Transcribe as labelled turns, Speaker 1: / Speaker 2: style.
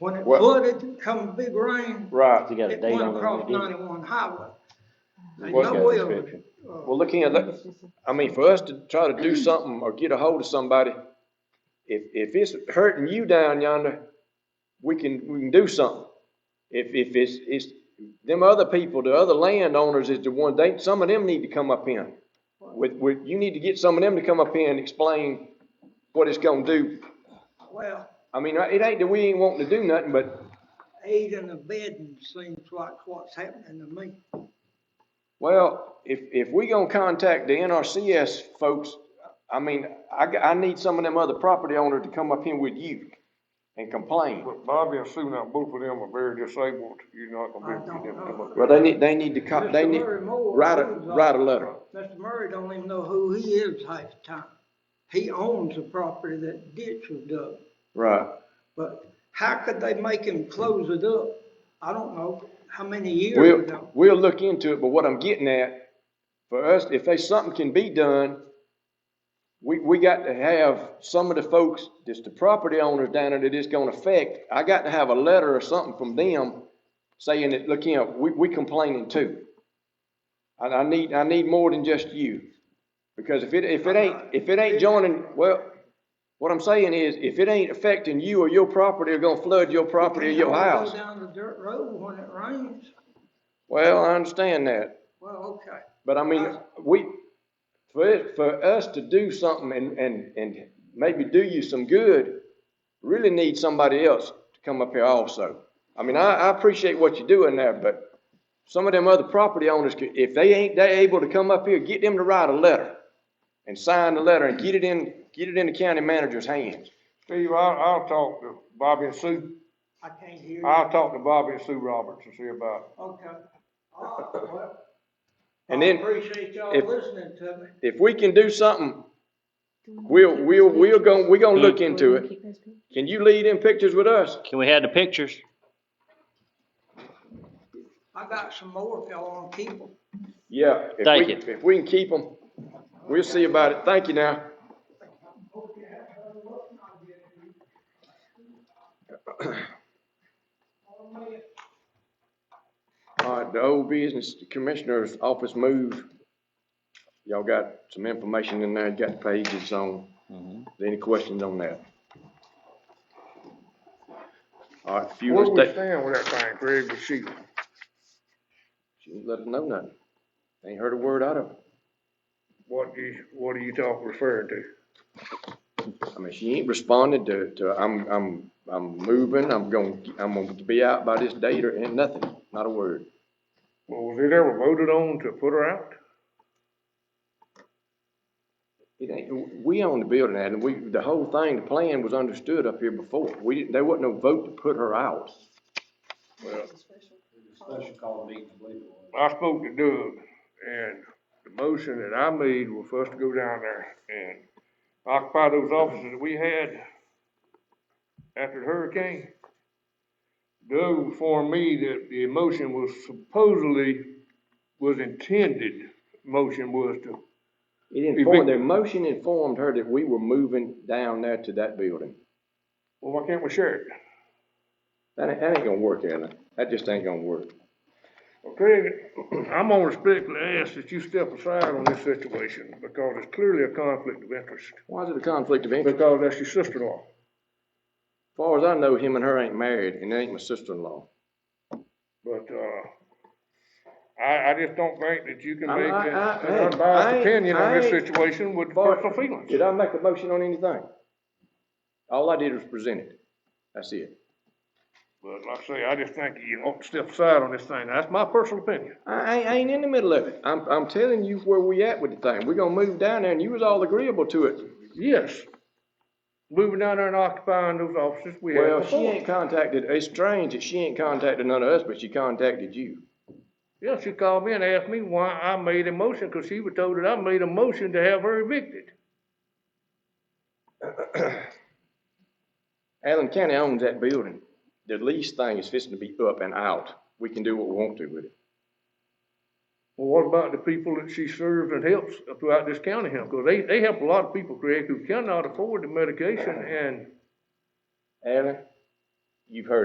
Speaker 1: When it
Speaker 2: Well-
Speaker 1: flooded, come big rain,
Speaker 2: Right.
Speaker 3: You got a
Speaker 1: it
Speaker 3: date
Speaker 1: went
Speaker 3: on it.
Speaker 1: across
Speaker 3: you did.
Speaker 1: ninety-one highway. There's
Speaker 2: What's
Speaker 1: no
Speaker 2: that
Speaker 1: way of
Speaker 3: description?
Speaker 1: it.
Speaker 2: Well, looking at that, I mean, for us to try to do something or get a hold of somebody, if, if it's hurting you down yonder, we can, we can do something. If, if it's, it's, them other people, the other landowners is the one, they, some of them need to come up in. With, with, you need to get some of them to come up in and explain what it's gonna do.
Speaker 1: Well,
Speaker 2: I mean, it ain't that we ain't wanting to do nothing, but,
Speaker 1: aiding and abetting seems like what's happening to me.
Speaker 2: well, if, if we gonna contact the NRCS folks, I mean, I, g- I need some of them other property owners to come up here with you and complain.
Speaker 4: But Bobby and Sue, now both of them are very disabled, you're not gonna be, able to get them to come up.
Speaker 2: Well, they need, they need to, co- they
Speaker 1: Mr.
Speaker 2: need,
Speaker 1: Murray Moore
Speaker 2: write a,
Speaker 1: owns all-
Speaker 2: write a letter.
Speaker 1: Mr. Murray don't even know who he is half the time. He owns the property that ditch was dug,
Speaker 2: Right.
Speaker 1: but how could they make him close it up? I don't know how many years
Speaker 2: We'll,
Speaker 1: ago.
Speaker 2: we'll look into it, but what I'm getting at, for us, if there's something can be done, we, we got to have some of the folks, just the property owners down there that it's gonna affect, I got to have a letter or something from them saying that, look, you know, we, we complaining too. And I need, I need more than just you. Because if it, if it ain't, if it ain't joining, well, what I'm saying is, if it ain't affecting you or your property, or gonna flood your property or your
Speaker 1: They
Speaker 2: house.
Speaker 1: Go down the dirt road when it rains.
Speaker 2: Well, I understand that.
Speaker 1: Well, okay.
Speaker 2: But I mean, we, for, it- for us to do something and, and, and maybe do you some good, really need somebody else to come up here also. I mean, I, I appreciate what you're doing there, but some of them other property owners, could- if they ain't, they able to come up here, get them to write a letter and sign the letter and get it in, get it in the county manager's hands.
Speaker 4: Steve, I'll, I'll talk to Bobby and Sue,
Speaker 1: I can't hear you.
Speaker 2: Ah.
Speaker 4: I'll talk to Bobby and Sue Roberts and see about it.
Speaker 1: Okay. All right, well,
Speaker 2: And
Speaker 1: I
Speaker 2: then
Speaker 1: Appreciate y'all
Speaker 2: if-
Speaker 1: listening to me.
Speaker 2: If we can do something, we'll, we'll, we'll go, we gonna look into it. Can you lead in pictures with us?
Speaker 3: Can we have the pictures?
Speaker 1: I got some more if y'all want to keep them.
Speaker 2: Yeah. if we-
Speaker 3: Thank you.
Speaker 2: If we can keep them, we'll see about it. Thank you now. All right, the old business, the commissioner's office move. Y'all got some information in there, You got pages on. Any questions on that? All right, if you
Speaker 4: Where
Speaker 2: want to
Speaker 4: we
Speaker 2: stay,
Speaker 4: stand with that thing, Craig and Sheila?
Speaker 2: she didn't let us know nothing. Ain't heard a word out of her.
Speaker 4: What do you, what are you talking, referring to?
Speaker 2: I mean, she ain't responded to, to, I'm, I'm, I'm moving, I'm gonna, I'm gonna be out by this date or, and nothing, not a word.
Speaker 4: Well, was it ever voted on to put her out?
Speaker 2: It ain't, we own the building, Adam, we, the whole thing, the plan was understood up here before, we didn't, there wasn't no vote to put her out.
Speaker 5: Special call meeting, I believe it was.
Speaker 4: I spoke to Doug, and the motion that I made was for us to go down there and occupy those offices that we had after the hurricane. Doug informed me that the motion was supposedly, was intended, motion was to,
Speaker 2: It informed, the motion informed her that we were moving down there to that building.
Speaker 4: well, why can't we share it?
Speaker 2: That ain't, that ain't gonna work, Adam, that just ain't gonna work.
Speaker 4: Okay, I'm gonna respectfully ask that you step aside on this situation, because it's clearly a conflict of interest,
Speaker 2: Why is it a conflict of interest?
Speaker 4: because that's your sister-in-law.
Speaker 2: As Far as I know, him and her ain't married, and they ain't my sister-in-law.
Speaker 4: But, uh, I, I just don't think that you can
Speaker 2: I-
Speaker 4: make
Speaker 2: I-
Speaker 4: an
Speaker 2: I-
Speaker 4: an
Speaker 2: I- I-
Speaker 4: unbiased opinion on this
Speaker 2: I-
Speaker 4: situation with
Speaker 2: Bart,
Speaker 4: personal feelings.
Speaker 2: Did I make a motion on anything? All I did was present it. That's it.
Speaker 4: But like I say, I just think you ought to step aside on this thing. That's my personal opinion.
Speaker 2: I, I ain't in the middle of it. I'm, I'm telling you where we at with the thing. We're gonna move down there and you was all agreeable to it.
Speaker 4: Yes. Moving down there and occupying those offices we had
Speaker 2: Well, she
Speaker 4: before.
Speaker 2: ain't contacted, it's strange that she ain't contacted none of us, but she contacted you.
Speaker 4: Yeah, she called me and asked me why I made a motion, cause she was told that I made a motion to have her evicted.
Speaker 2: Allen County owns that building. The lease thing is fixing to be up and out. We can do what we want to with it.
Speaker 4: Well, what about the people that she serves and helps throughout this county here? Cause they, they help a lot of people, Craig, who cannot afford the medication and
Speaker 2: Allen, you've heard